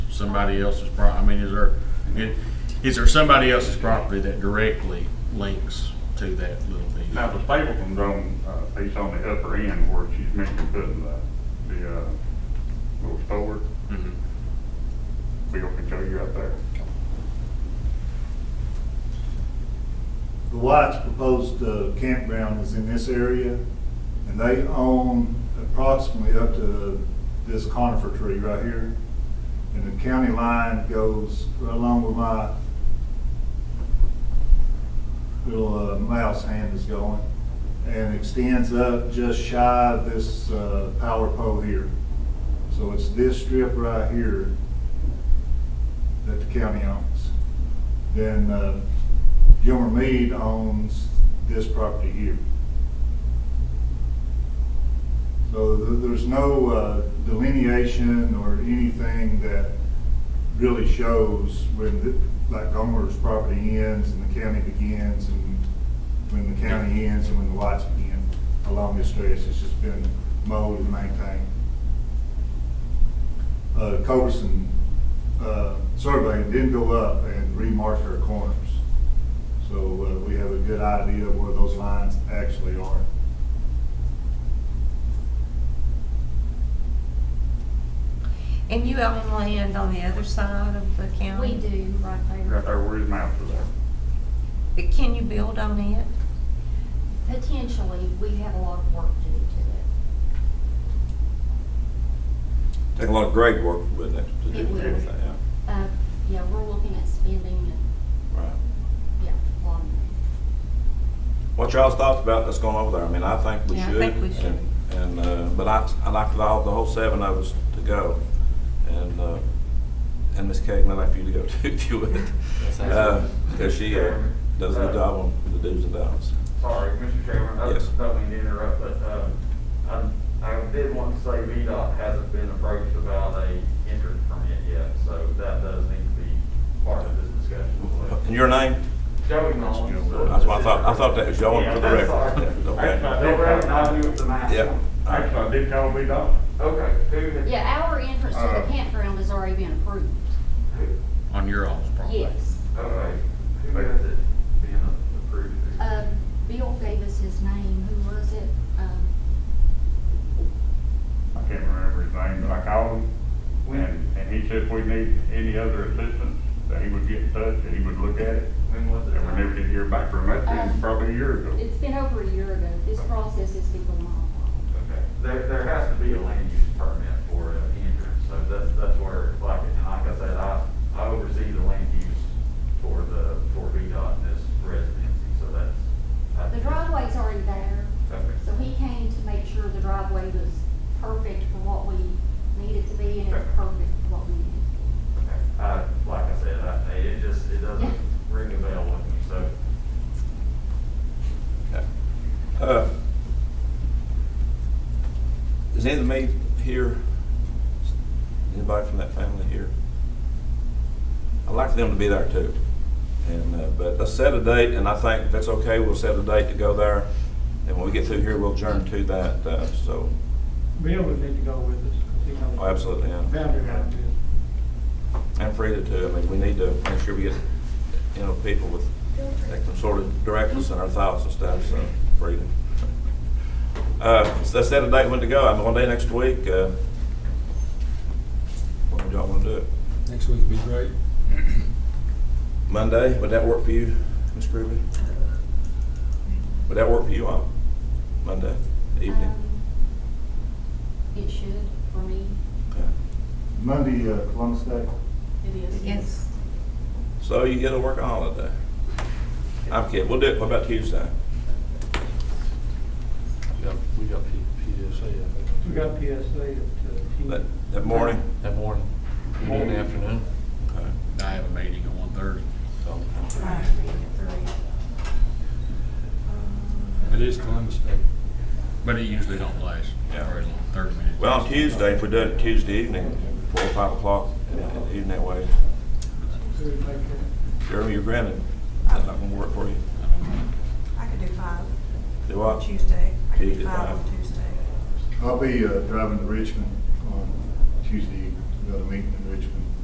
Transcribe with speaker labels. Speaker 1: somebody else's pro, I mean, is there, it- is there somebody else's property that directly links to that little piece?
Speaker 2: Now, the Stapleton's on, uh, piece on the upper end where she's mentioned putting the, the, uh, little store,
Speaker 1: Mhm.
Speaker 2: Bill can show you out there.
Speaker 3: The White's proposed uh, campground is in this area, and they own approximately up to this conifer tree right here. And the county line goes right along where my little uh, mouse hand is going, and extends up just shy of this uh, power pole here. So it's this strip right here that the county owns. Then uh, Gilmer Mead owns this property here. So th- there's no uh, delineation or anything that really shows when, the- like Gomer's property ends and the county begins and when the county ends and when the Whites begin along this stretch. It's just been mowed and maintained. Uh, Culberson, uh, survey didn't go up and remarked her corners. So uh, we have a good idea of where those lines actually are.
Speaker 4: And you own land on the other side of the
Speaker 5: We
Speaker 4: county?
Speaker 5: do, right
Speaker 2: Right
Speaker 5: there.
Speaker 2: there where his mouth is at.
Speaker 4: But can you build on it?
Speaker 5: Potentially, we have a lot of work to do to
Speaker 6: Take a lot of grade work with it to
Speaker 5: It
Speaker 6: do
Speaker 5: will.
Speaker 6: everything, yeah.
Speaker 5: it. Uh, yeah, we're looking at spending, uh,
Speaker 6: Right.
Speaker 5: yeah, a lot of money.
Speaker 6: What y'all's thoughts about that's going over there? I mean, I think we
Speaker 4: Yeah, I
Speaker 6: should.
Speaker 4: think we should.
Speaker 6: and- And, uh, but I, I like for all, the whole seven of us to go. And, uh, and Ms. Cagle, I'd like for you to go too, if you would.
Speaker 7: That sounds
Speaker 6: Uh,
Speaker 7: good.
Speaker 6: Cause she, uh, does a good job on the do's and don'ts.
Speaker 8: Sorry, Mr. Chairman, I
Speaker 6: Yes.
Speaker 8: don't mean to interrupt, but, um, I, I did want to say VDOT hasn't been approached about a entrance permit yet, so that does need to be part of this discussion.
Speaker 6: And your name?
Speaker 8: Joey Mullins. uh,
Speaker 6: That's what I thought, I thought that was y'all
Speaker 8: Yeah,
Speaker 6: for the
Speaker 8: I'm
Speaker 6: record.
Speaker 8: sorry.
Speaker 6: Yeah,
Speaker 2: Actually, I
Speaker 6: Okay.
Speaker 2: did
Speaker 8: Don't worry,
Speaker 2: call,
Speaker 8: I'll do it tonight.
Speaker 6: Yeah.
Speaker 2: actually, I did call B Dot.
Speaker 8: Okay, who had?
Speaker 5: Yeah, our entrance to
Speaker 2: Uh,
Speaker 5: the campground has already been approved.
Speaker 8: who-
Speaker 1: On your all's property?
Speaker 5: Yes.
Speaker 8: Okay, who has it being approved?
Speaker 5: Uh, Bill gave us his name. Who was it? Um,
Speaker 2: I can't remember his name, but I called him. And, and he said if we need any other assistance, that he would get in touch, that he would look at it.
Speaker 8: When was it?
Speaker 2: And we never did hear back from him, that's been probably a year ago.
Speaker 5: It's been over a year ago. This process has been going on.
Speaker 8: Okay, there, there has to be a land use permit for an entrance, so that's, that's where, like, and like I said, I, I oversee the land use for the, for VDOT in this residency, so that's. I-
Speaker 5: The driveway's already there,
Speaker 8: Okay.
Speaker 5: so he came to make sure the driveway was perfect for what we needed to be and it's perfect for what we needed.
Speaker 8: Okay. I, Uh, like I said, I, it just, it doesn't ring a bell with me, so.
Speaker 6: Okay. Uh, Is any of the maid here, anybody from that family here? I'd like for them to be there too. And, uh, but let's set a date, and I think if that's okay, we'll set a date to go there. And when we get through here, we'll adjourn to that, uh, so,
Speaker 9: Bill would need to go with us. 'cause he knows
Speaker 6: oh, absolutely, yeah.
Speaker 9: Boundary line is.
Speaker 6: And Frida too, I mean, we need to make sure we get, you know, people with, that can sort of direct us in our thoughts and stuff, so, Frida. Uh, so let's set a date when to go, I'm one day next week, uh, when would y'all wanna do it?
Speaker 7: Next week would be great.
Speaker 6: Monday, would that work for you, Ms. Gribby? Would that work for you on Monday evening?
Speaker 5: Um, It should, for me,
Speaker 6: Okay.
Speaker 3: Monday, uh, Columbus Day.
Speaker 5: it is.
Speaker 4: Yes.
Speaker 6: So you get to work a holiday. I'm kidding, we'll do it, what about Tuesday?
Speaker 7: We got, we got P- PSA, I think.
Speaker 9: We got PSA at uh,
Speaker 6: That,
Speaker 9: ten.
Speaker 6: that morning?
Speaker 7: That morning, in the afternoon.
Speaker 6: Okay.
Speaker 1: I have a meeting at one thirty.
Speaker 6: So,
Speaker 7: It is Columbus Day.
Speaker 1: But it usually don't last
Speaker 6: Yeah.
Speaker 1: very long, thirty minutes.
Speaker 6: Well, on Tuesday, if we do it Tuesday evening, four or five o'clock in the evening that way,
Speaker 9: Who would make that?
Speaker 6: Jeremy, you're granted. That's not gonna work for you.
Speaker 10: I could do five
Speaker 6: Do
Speaker 10: on
Speaker 6: what?
Speaker 10: Tuesday. I could
Speaker 6: Tuesday,
Speaker 10: do five on
Speaker 6: five.
Speaker 10: Tuesday.
Speaker 3: I'll be uh, driving to Richmond on Tuesday, evening. we got a meeting in Richmond.